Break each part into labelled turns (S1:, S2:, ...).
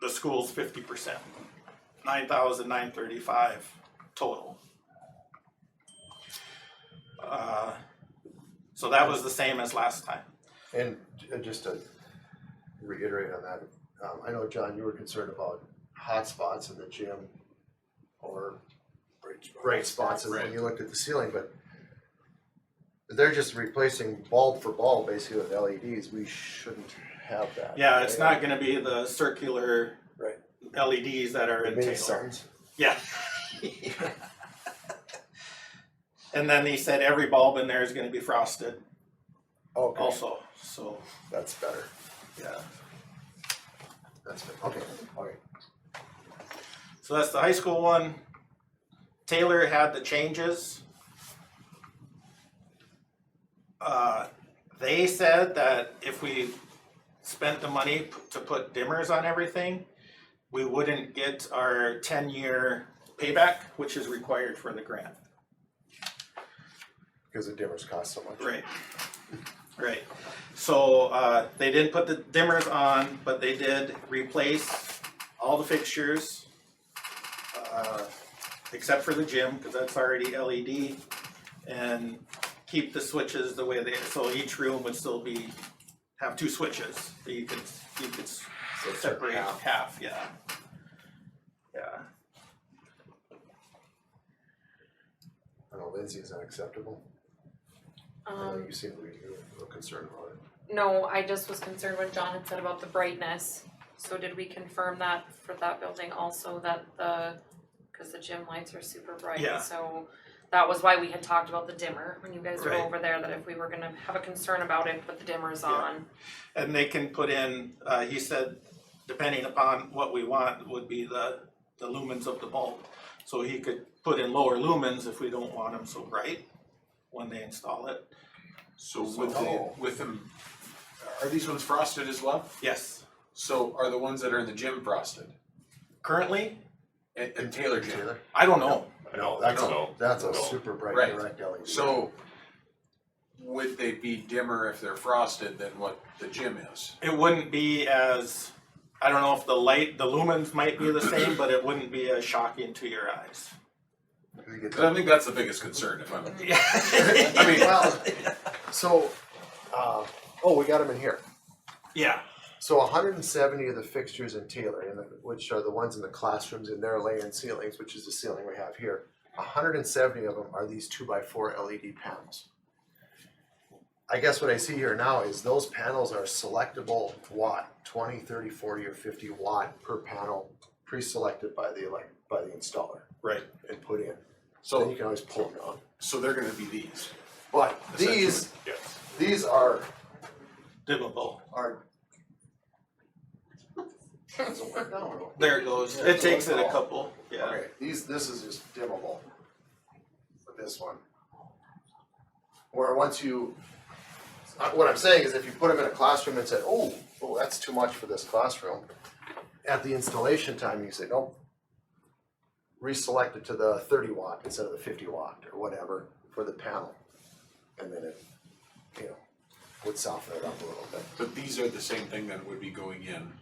S1: the school's fifty percent. Nine thousand nine thirty-five total. Uh, so that was the same as last time.
S2: And j- uh, just to reiterate on that, um, I know, John, you were concerned about hot spots in the gym or bright spots and when you looked at the ceiling, but they're just replacing bulb for bulb basically with LEDs. We shouldn't have that.
S1: Yeah, it's not gonna be the circular
S2: Right.
S1: LEDs that are
S2: The
S1: in
S2: mini
S1: Taylor.
S2: suns.
S1: Yeah. And then he said every bulb in there is gonna be frosted
S2: Okay,
S1: also, so,
S2: that's better.
S1: yeah.
S2: That's better. Okay, okay.
S1: So that's the high school one. Taylor had the changes. Uh, they said that if we spent the money p- to put dimmers on everything, we wouldn't get our ten-year payback, which is required for the grant.
S2: Because the dimmers cost so much.
S1: Right. Right. So uh, they didn't put the dimmers on, but they did replace all the fixtures. Uh, except for the gym, because that's already LED. And keep the switches the way they, so each room would still be, have two switches. that You could, you could s-
S2: So it's
S1: separate
S2: half.
S1: half, yeah. Yeah.
S2: I know Lindsay is unacceptable. I know
S3: Um,
S2: you seem to be a little concerned about it.
S3: no, I just was concerned when John had said about the brightness. So did we confirm that for that building also that the, cause the gym lights are super
S1: Yeah.
S3: bright, so that was why we had talked about the dimmer when you guys were
S1: Right.
S3: over there, that if we were gonna have a concern about it, put the dimmers
S1: Yeah.
S3: on.
S1: And they can put in, uh, he said, depending upon what we want would be the, the lumens of the bulb. So he could put in lower lumens if we don't want them so bright when they install it.
S4: So with the,
S2: So-
S4: with them, are these ones frosted as well?
S1: Yes,
S4: So are the ones that are in the gym frosted?
S1: currently,
S4: And, and Taylor gym?
S2: Taylor?
S1: I don't know.
S2: No, that's a,
S4: No.
S2: that's a
S5: No.
S2: super bright
S4: Right.
S2: direct E LED.
S4: So would they be dimmer if they're frosted than what the gym is?
S1: It wouldn't be as, I don't know if the light, the lumens might be the same, but it wouldn't be as shocking to your eyes.
S2: You get
S4: 'Cause I think that's the biggest concern if I'm,
S1: Yeah.
S4: I mean,
S2: Well, so, uh, oh, we got them in here.
S1: Yeah,
S2: So hundred and seventy of the fixtures in Taylor, and the- which are the ones in the classrooms and their lay-in ceilings, which is the ceiling we have here. hundred and seventy of them are these two by four LED panels. I guess what I see here now is those panels are selectable watt, 20, 30, 40, or fifty watt per panel, pre-selected by the elect, by the installer
S1: right,
S2: and put in. Then you
S4: so,
S2: can always pull it on.
S4: so they're gonna be these.
S2: But these, these are
S1: dimmable.
S2: are. That's a word, I don't know.
S1: There it goes. It takes it a couple, yeah.
S2: Okay, these, this is just dimmable. With this one. Where once you, uh, what I'm saying is if you put them in a classroom and said, oh, oh, that's too much for this classroom. At the installation time, you say, nope. Reselect it to the thirty watt instead of the fifty watt or whatever for the panel. And then it, you know, would soften it up a little bit.
S4: But these are the same thing that would be going in.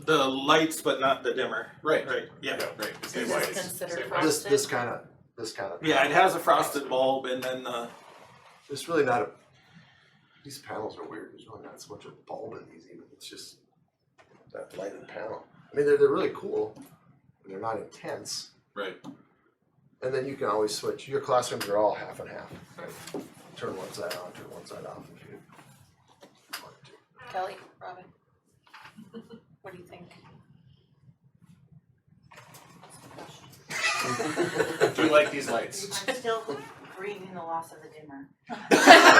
S1: The lights, but not the dimmer.
S4: Right,
S1: Right, yeah.
S4: right.
S3: Is
S4: Anyways.
S3: this considered
S2: This,
S3: frosted?
S2: this kind of, this kind of.
S1: Yeah, it has a frosted bulb and then uh, the,
S2: It's really not a. These panels are weird. There's really not so much a bulb in these even. It's just that lighted panel. I mean, they're, they're really cool. but They're not intense.
S4: Right,
S2: And then you can always switch. Your classrooms are all half and half. Turn one side on, turn one side off if you want to.
S3: Kelly, Robin? What do you think?
S4: do you like these lights?
S6: I'm still grieving the loss of the dimmer. I,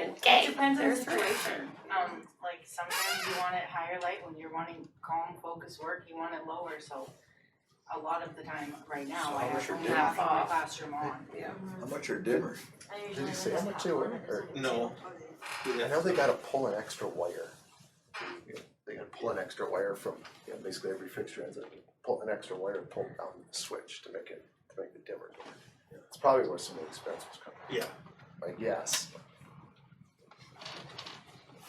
S6: it depends on the situation. Um, like sometimes you want it higher light when you're wanting calm, focused work, you want it lower, so a lot of the time right now, I have only half my classroom on.
S7: How much are dimmers?
S2: Did you say how much they were? Or-
S1: no.
S2: I know they gotta pull an extra wire. You know, They gotta pull an extra wire from, you know, basically every fixture ends up pulling an extra wire and pull down the switch to make it, to make the dimmer. do it. It's probably where some of the expense was coming
S1: Yeah,
S2: I guess.